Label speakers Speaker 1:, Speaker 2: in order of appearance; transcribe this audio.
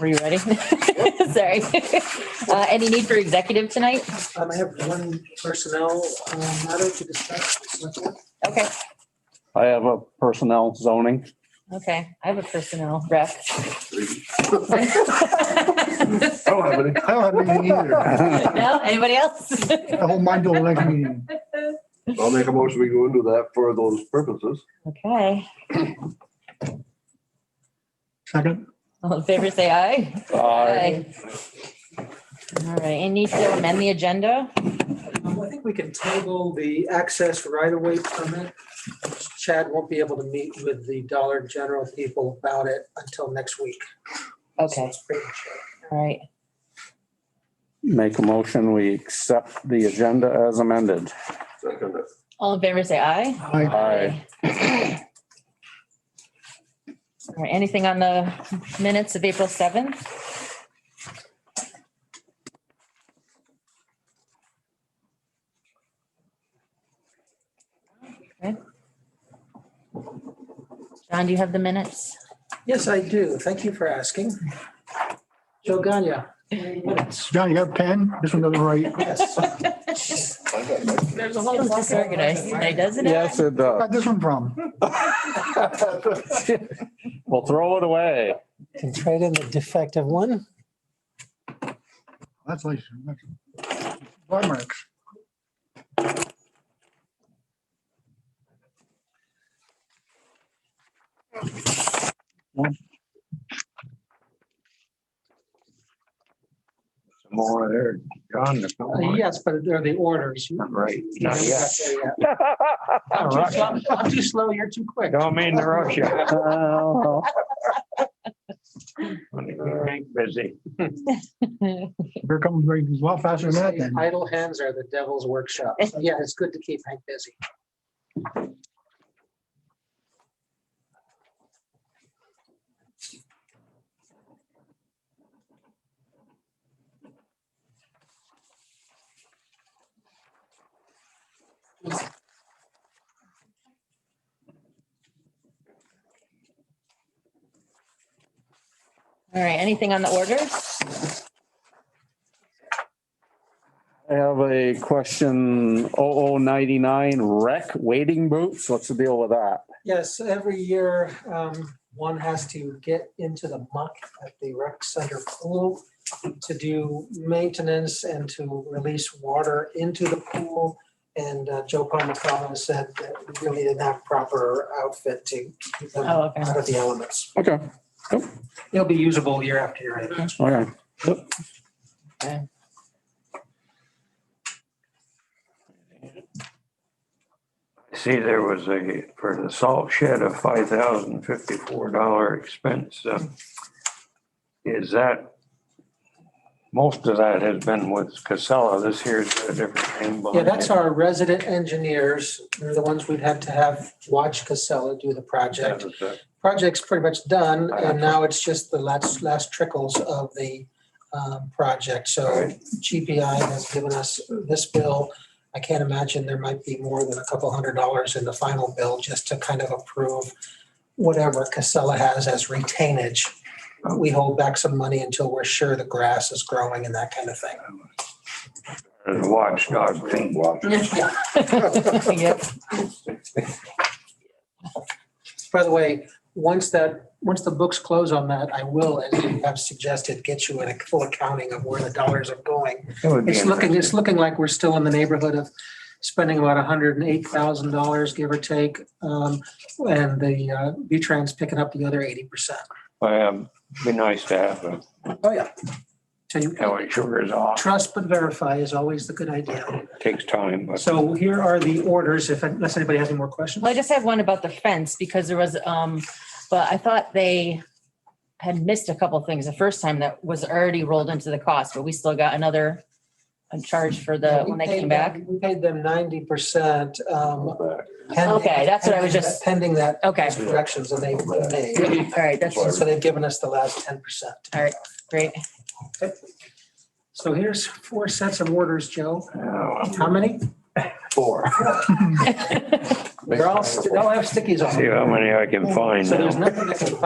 Speaker 1: Were you ready? Sorry. Uh, Any need for executive tonight?
Speaker 2: Um, I have one personnel, um, matter to discuss. with select board.
Speaker 1: Okay,
Speaker 3: I have a personnel zoning.
Speaker 1: okay. I have a personnel rep.
Speaker 4: Oh, I don't have any, I don't have any either.
Speaker 1: No, anybody else?
Speaker 4: I hold mine till the next meeting.
Speaker 5: I'll make a motion, we go into that for those purposes.
Speaker 1: Okay,
Speaker 4: Second,
Speaker 1: all in favor, say aye.
Speaker 3: I
Speaker 1: All right, any need to amend the agenda?
Speaker 2: Um, I think we can table the access right-of-way permit. Chad won't be able to meet with the Dollar General people about it until next week. So
Speaker 1: Okay,
Speaker 2: it's pretty much it.
Speaker 1: all right.
Speaker 3: make a motion, we accept the agenda as amended.
Speaker 5: Second,
Speaker 1: All in favor, say aye.
Speaker 4: I,
Speaker 3: Aye.
Speaker 1: All right, anything on the minutes of April 7th? Okay. John, do you have the minutes?
Speaker 2: Yes, I do. Thank you for asking. Joe Gagnon. Minutes.
Speaker 4: John, you got a pen? This one doesn't write.
Speaker 2: Yes.
Speaker 5: I got my-
Speaker 1: There's a whole. Disorganized today, doesn't it?
Speaker 3: Yes, it does.
Speaker 4: Got this one from?
Speaker 3: Well, throw it away.
Speaker 6: Can trade in the defective one.
Speaker 4: That's like. that's- Bar marks.
Speaker 5: More there, John, there's no more.
Speaker 2: Yes, but they're the orders.
Speaker 5: Not right.
Speaker 2: Not yet. I'm too slow- I'm too slow, you're too quick.
Speaker 7: Don't mean to rush you.
Speaker 3: Oh,
Speaker 7: You ain't busy.
Speaker 4: Here comes, very- it's a lot faster than that then.
Speaker 2: Idle hands are the devil's workshop. So, Yeah, it's good to keep Hank busy.
Speaker 1: All right, anything on the orders?
Speaker 3: I have a question, 0099 rec waiting boots. What's the deal with that?
Speaker 2: Yes, every year, um, one has to get into the muck at the rec center pool to do maintenance and to release water into the pool. And uh, Joe Palmacala said that we really didn't have proper outfit to keep them
Speaker 1: Oh, okay.
Speaker 2: out of the elements.
Speaker 3: Okay,
Speaker 2: It'll be usable year after year. I think.
Speaker 3: okay.
Speaker 7: See, there was a, for the salt shed, a five thousand fifty-four dollar expense. uh, Is that, most of that has been with Casella. This here's a different name.
Speaker 2: Yeah, that's our resident engineers. They're the ones we'd have to have watch Casella do the project. project's pretty much done, and now it's just the last, last trickles of the um, project. So
Speaker 7: Right.
Speaker 2: GPI has given us this bill. I can't imagine there might be more than a couple hundred dollars in the final bill just to kind of approve whatever Casella has as retainage. We hold back some money until we're sure the grass is growing and that kind of thing.
Speaker 7: Watchdog thing.
Speaker 1: Yep.
Speaker 2: By the way, once that, once the books close on that, I will, as you have suggested, get you a full accounting of where the dollars are going.
Speaker 7: It would be
Speaker 2: It's looking, it's
Speaker 7: interesting.
Speaker 2: looking like we're still in the neighborhood of spending about hundred and eight thousand dollars, give or take. Um, and the, uh, B-Trans picking up the other eighty percent.
Speaker 7: Um, Be nice to have a,
Speaker 2: Oh, yeah. So you,
Speaker 7: how it sure is off.
Speaker 2: trust but verify is always the good idea.
Speaker 7: Takes time, but.
Speaker 2: So here are the orders, if, unless anybody has any more questions.
Speaker 1: Well, I just have one about the fence because there was, um, but I thought they had missed a couple things the first time that was already rolled into the cost, but we still got another a charge for the, when they came back.
Speaker 2: We paid them ninety percent, um. pending-
Speaker 1: Okay, that's what I was just-
Speaker 2: Pending that,
Speaker 1: Okay,
Speaker 2: those corrections that they made.
Speaker 1: all right, that's
Speaker 2: So they've given us the last ten percent.
Speaker 1: great.
Speaker 2: So here's four sets of orders, Joe. How
Speaker 7: uh,
Speaker 2: many?
Speaker 5: Four.
Speaker 2: They're all, they all have stickies on
Speaker 7: See
Speaker 2: them.
Speaker 7: how many I can find
Speaker 2: So
Speaker 7: now.
Speaker 2: there's nothing that can